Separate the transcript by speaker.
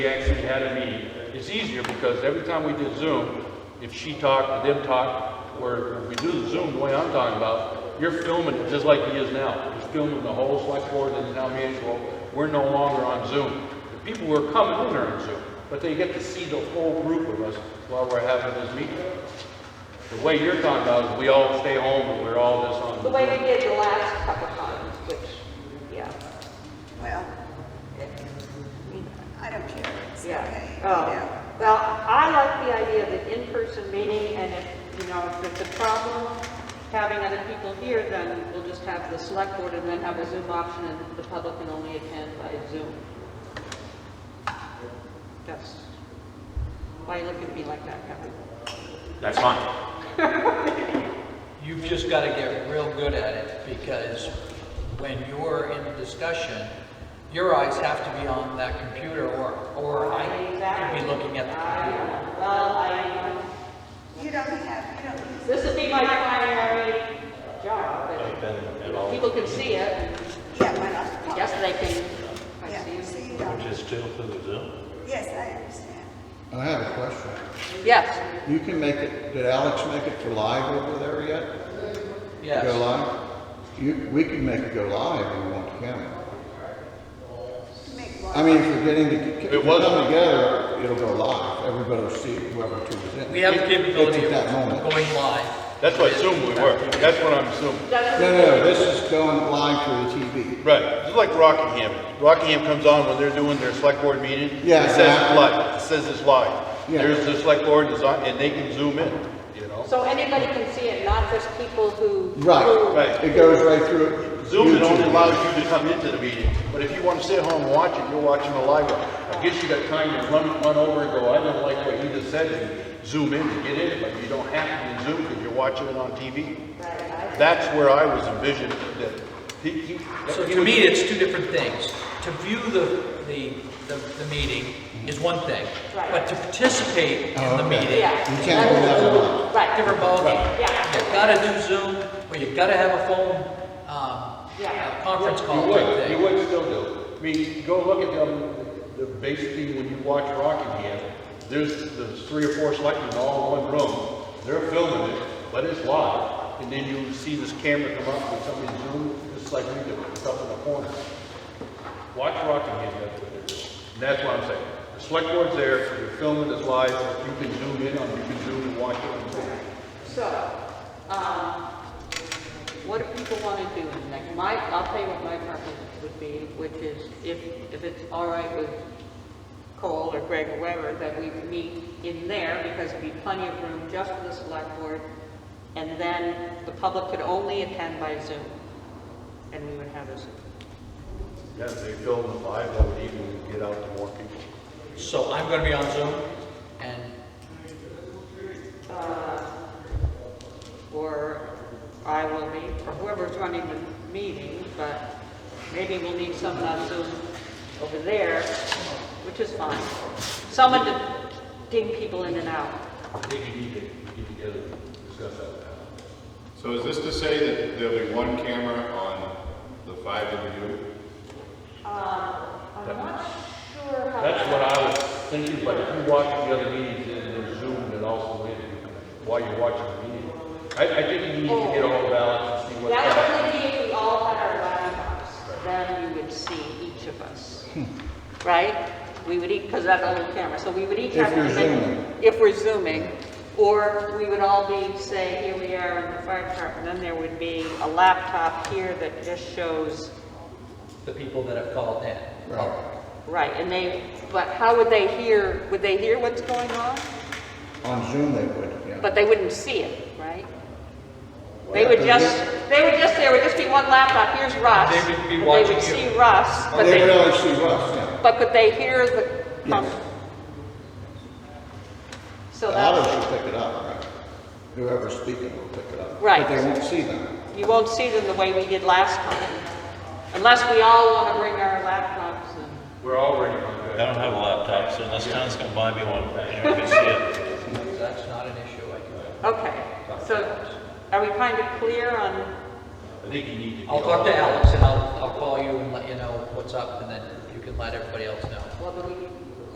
Speaker 1: We actually had a meeting. It's easier because every time we did Zoom, if she talked, them talked, or if we do the Zoom the way I'm talking about, you're filming it just like he is now. He's filming the whole select board and the town manager. Well, We're no longer on Zoom. The people who are coming in are on Zoom, but they get to see the whole group of us while we're having this meeting. The way you're talking about is we all stay home and we're all this on.
Speaker 2: The way we did the last couple times, which, yeah,
Speaker 3: Well, it- I don't care, it's okay.
Speaker 2: yeah. Oh, well, I like the idea of an in-person meeting, and if, you know, if it's a problem having other people here, then we'll just have the select board and then have a Zoom option, and the public can only attend by Zoom. That's, why you look at me like that, Kevin?
Speaker 4: That's fine.
Speaker 5: You've just got to get real good at it because when you're in discussion, your eyes have to be on that computer or, or I could be looking at the
Speaker 2: I-
Speaker 5: computer.
Speaker 2: Well, I,
Speaker 3: You don't have, you don't use
Speaker 2: this would be my primary job, but you know, people can see it, and
Speaker 3: Yeah, why not?
Speaker 2: Yes, they can. I
Speaker 3: Yeah, so
Speaker 2: see
Speaker 3: you don't,
Speaker 4: Just still through the Zoom?
Speaker 3: yes, I understand.
Speaker 6: I have a question.
Speaker 2: you. Yes.
Speaker 6: You can make it, did Alex make it for live over there yet? Go
Speaker 5: Yes.
Speaker 6: live? You, we can make it go live if we want to.
Speaker 3: Make
Speaker 6: I
Speaker 3: one,
Speaker 6: mean, if we're getting to, if
Speaker 1: It
Speaker 6: we're
Speaker 1: was-
Speaker 6: coming together, it'll go live. Everybody will see whoever chooses it.
Speaker 5: We have the capability
Speaker 6: It's at that
Speaker 5: of
Speaker 6: moment.
Speaker 5: going live.
Speaker 1: That's what Zoom we were. That's what I'm assuming.
Speaker 6: No, no, this is going live through the TV.
Speaker 1: Right, just like Rockingham. Rockingham comes on when they're doing their select board meeting.
Speaker 6: Yeah,
Speaker 1: It says it's
Speaker 6: exactly.
Speaker 1: live, it says it's live.
Speaker 6: Yeah.
Speaker 1: There's the select board is on, and they can zoom in, you know?
Speaker 2: So anybody can see it, not just people who. who-
Speaker 6: Right,
Speaker 1: Right.
Speaker 6: it goes right through.
Speaker 1: Zoom it only
Speaker 6: YouTube.
Speaker 1: allows you to come into the meeting, but if you want to sit home and watch it, you're watching a live one. I guess you got time to run, run over and go, I don't like what you just said, and zoom in to get in, it, but you don't have to zoom because you're watching it on TV. That's where I was envisioning that. he- he-
Speaker 5: So to me, it's two different things. To view the, the, the, the meeting is one thing,
Speaker 2: Right.
Speaker 5: but to participate in
Speaker 6: Oh,
Speaker 5: the
Speaker 6: okay.
Speaker 5: meeting,
Speaker 2: Yeah.
Speaker 6: You can't go live live.
Speaker 2: Right,
Speaker 5: different ballgame.
Speaker 2: Yeah.
Speaker 5: You've got to do Zoom or you've got to have a phone, um,
Speaker 2: Yeah.
Speaker 5: a conference
Speaker 1: You
Speaker 5: call type
Speaker 1: would, you
Speaker 5: thing.
Speaker 1: would still do. I mean, go look at them, the, basically, when you watch Rockingham, there's, there's three or four selectmen all in one room. They're filming it, but it's live. And then you see this camera come up with somebody zoom, just like we do, it's up in the corner. Watch Rockingham, that's what they're doing. And that's what I'm saying. The select board's there, you're filming this live, you can zoom in on, you can zoom and watch it on Zoom.
Speaker 2: so, um, what do people want to do? Like, my, I'll tell you what my preference would be, which is if, if it's all right with Cole or Greg or whoever, that we meet in there because there'd be plenty of room just for the select board. And then the public could only attend by Zoom. And we would have a Zoom.
Speaker 1: Yeah, if they film it live, that would even get out to more people.
Speaker 5: So I'm going to be on Zoom and
Speaker 2: or I will be, or whoever's running the meeting, but maybe we'll need someone on Zoom over there, which is fine. Someone to ding people in and out.
Speaker 1: I think you need to get together and discuss that with Alan.
Speaker 7: So is this to say that there'll be one camera on the five of you?
Speaker 2: Uh, I'm not sure how.
Speaker 1: That's what I was thinking, but if you watch the other meetings and there's Zoom and also in, while you're watching the meeting, I, I think you need to get all balance and see what's
Speaker 2: That
Speaker 1: happening.
Speaker 2: would only be if we all had our laptops, then we would see each of us,
Speaker 6: Hmm.
Speaker 2: right? We would each, because that's on the camera, so we would each
Speaker 6: If
Speaker 2: have.
Speaker 6: you're
Speaker 2: to make-
Speaker 6: zooming.
Speaker 2: If we're zooming, or we would all be, say, here we are in the fire department, then there would be a laptop here that just shows,
Speaker 5: the people that have called in.
Speaker 6: Right,
Speaker 2: right, and they, but how would they hear, would they hear what's going on?
Speaker 6: on Zoom they would, yeah.
Speaker 2: But they wouldn't see it, right? They would just, they would just, there would just be one laptop, here's Russ.
Speaker 5: They would be
Speaker 2: and They would
Speaker 5: watching you.
Speaker 2: see Russ, but
Speaker 6: Oh, They
Speaker 2: they.
Speaker 6: would only see us, yeah.
Speaker 2: But could they hear the?
Speaker 6: Yes.
Speaker 2: So
Speaker 6: The others
Speaker 2: that's,
Speaker 6: will pick it up, right? Whoever's speaking will pick it up.
Speaker 2: Right.
Speaker 6: But they won't see them.
Speaker 2: you won't see them the way we did last time, unless we all want to bring our laptops and,
Speaker 1: We're already on
Speaker 4: I
Speaker 1: that.
Speaker 4: don't have a laptop, so this town's gonna buy me one, and I can see it.
Speaker 5: That's not an issue, I can.
Speaker 2: okay. So are we kind of clear on,
Speaker 1: I think you need to.
Speaker 5: I'll talk to Alex and I'll, I'll call you and let you know what's up and then you can let everybody else know.
Speaker 2: well, do we